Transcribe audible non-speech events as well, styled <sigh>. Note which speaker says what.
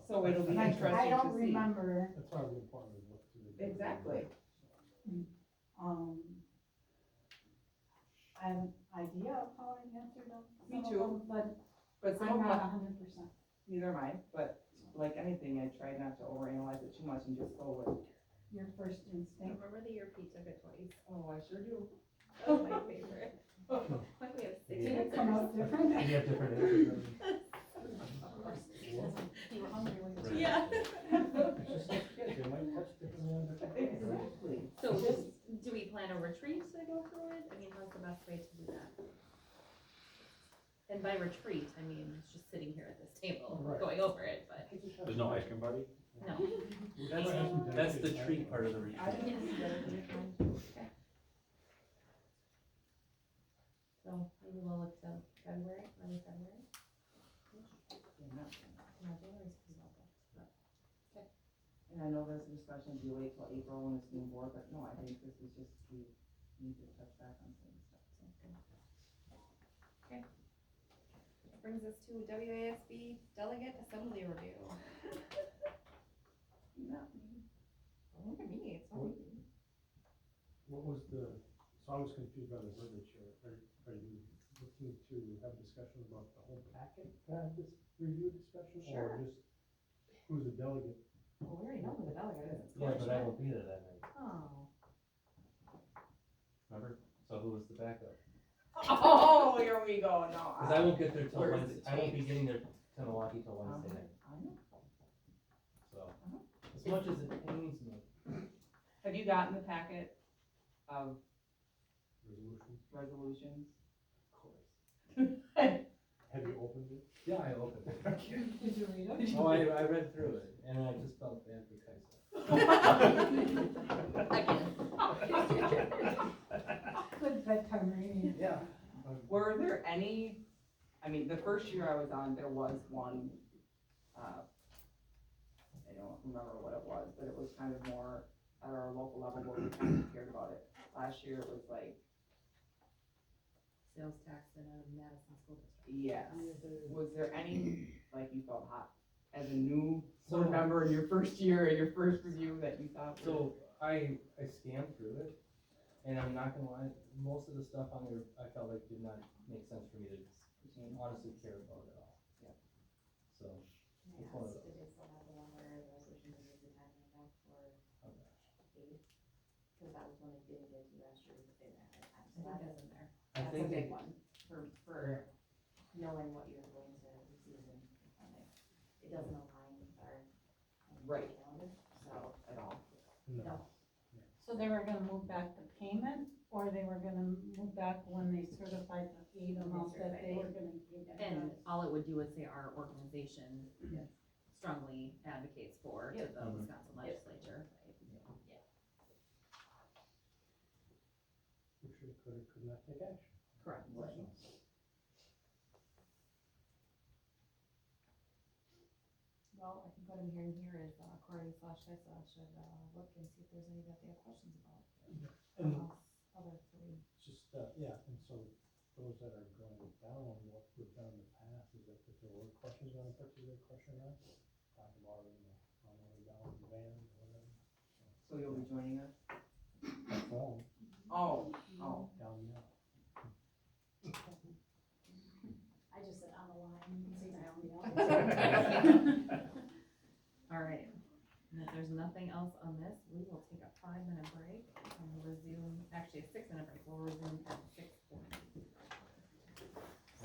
Speaker 1: So it'll be
Speaker 2: Like, I
Speaker 1: interesting
Speaker 2: don't
Speaker 1: to see.
Speaker 2: remember,
Speaker 3: That's probably important to look through.
Speaker 1: Exactly.
Speaker 2: um, I have an idea of how I answered them.
Speaker 1: Me
Speaker 2: some of
Speaker 1: too.
Speaker 2: them, But
Speaker 1: But some
Speaker 2: I'm
Speaker 1: of
Speaker 2: not
Speaker 1: my,
Speaker 2: hundred percent.
Speaker 1: neither am I, but like anything, I try not to overanalyze it too much and just go with,
Speaker 2: Your first instinct.
Speaker 4: Remember the year Pete took it twice?
Speaker 1: oh, I sure do.
Speaker 4: That was my favorite. Why do we have six
Speaker 2: Did it
Speaker 4: answers?
Speaker 2: come
Speaker 3: <laughs>
Speaker 2: out different? <laughs>
Speaker 5: You have different answers.
Speaker 4: Of course.
Speaker 2: You were hungry when you-
Speaker 5: Right.
Speaker 4: Yeah.
Speaker 5: It's just like kids, they might touch differently on different
Speaker 1: <laughs>
Speaker 5: things.
Speaker 1: Exactly.
Speaker 4: So
Speaker 1: Just-
Speaker 4: do we plan a retreat to go through it? I mean, how's the best way to do that? And by retreat, I mean, it's just sitting here at this table, <laughs>
Speaker 3: Right.
Speaker 4: going over it, but
Speaker 6: There's no ice cream buddy?
Speaker 4: no.
Speaker 5: That's, that's the treat part of the
Speaker 1: I
Speaker 5: retreat.
Speaker 1: don't think it's better than it might be.
Speaker 4: So maybe we'll look to February, early February.
Speaker 1: Yeah, not-
Speaker 4: No, January's pretty well booked, but-
Speaker 1: And I know there's a discussion, do you wait till April when it's new board, but no, I think this is just, we need to touch back on some stuff.
Speaker 4: Sounds good. Okay. That Brings us to WASB Delegate Assembly Review. <laughs>
Speaker 1: Not
Speaker 4: Look at me, it's not me.
Speaker 3: What was the, so I was confused by the verbiage here. Are, are you looking to have a discussion about the whole packet, to have this review discussion?
Speaker 4: Sure.
Speaker 3: Or just who's the delegate?
Speaker 4: Well, we already know who the delegate is.
Speaker 5: Yeah, but I will be there that night,
Speaker 4: Oh.
Speaker 5: remember? So who was the backup?
Speaker 1: <laughs> Oh, here we go, no.
Speaker 5: Cause I won't get there till
Speaker 4: Where's
Speaker 5: Wednesday,
Speaker 4: the
Speaker 5: I won't be
Speaker 4: tapes?
Speaker 5: getting there to Milwaukee till
Speaker 1: Um,
Speaker 5: Wednesday night,
Speaker 1: I know.
Speaker 5: so. As much as it pains me,
Speaker 1: Have you gotten the packet of
Speaker 3: Resolution?
Speaker 1: resolutions? <laughs>
Speaker 5: of course.
Speaker 3: Have you opened it?
Speaker 5: Yeah, I opened it.
Speaker 2: Did you read it?
Speaker 5: <laughs> Oh, I, I read through it and I just felt bad for Kaisa. <laughs>
Speaker 2: Good bedtime reading.
Speaker 5: Yeah.
Speaker 1: Were there any, I mean, the first year I was on, there was one, uh, I don't remember what it was, but it was kind of more at our local level where we kind of cared about it. Last year it was like,
Speaker 4: Sales tax in a Madison school district.
Speaker 1: yes, was there any, like you felt hot as a new
Speaker 5: So
Speaker 1: board member in your first year, in your first review that you thought? was-
Speaker 5: So I, I scanned through it, and I'm not gonna lie, most of the stuff on there, I felt like did not make sense for me to honestly care about at all.
Speaker 1: Yep.
Speaker 5: So, It's one of those.
Speaker 4: It is the one where the resolution is the time and back for
Speaker 5: okay.
Speaker 4: aid, because that was one they didn't get to last year, but they ran out of time, so that is in there.
Speaker 5: I
Speaker 4: That's a
Speaker 5: think,
Speaker 4: big
Speaker 5: it-
Speaker 4: one, for, for knowing what you're going to receive in, on it. It doesn't align with our. um,
Speaker 1: Right.
Speaker 4: calendar, So,
Speaker 1: At all.
Speaker 4: no,
Speaker 2: So they were gonna move back the payment, or they were gonna move back when they certified the aid amount that they were gonna give to
Speaker 4: and
Speaker 2: us?
Speaker 4: all it would do is say our organization strongly advocates for to the
Speaker 5: Mhm.
Speaker 4: Wisconsin legislature.
Speaker 3: We should, could, or could not take action.
Speaker 4: Correct. Well, I think what I'm hearing here is uh, Corey slash Tessa should uh, look and see if there's any that they have questions about.
Speaker 3: And
Speaker 4: Amongst Other three.
Speaker 3: just, uh, yeah, and so those that are going down, what we've done in the past is that if there were questions on a particular question or not, talk about it in the, on the way down, the van, or whatever.
Speaker 1: So you'll be joining us?
Speaker 3: Phone,
Speaker 1: Oh, oh,
Speaker 3: down there.
Speaker 2: I just said on the line, you can see my own.
Speaker 3: <laughs>
Speaker 2: <laughs>
Speaker 4: All right, and if there's nothing else on this, we will take a five minute break and we'll resume, actually a six minute break, we'll resume at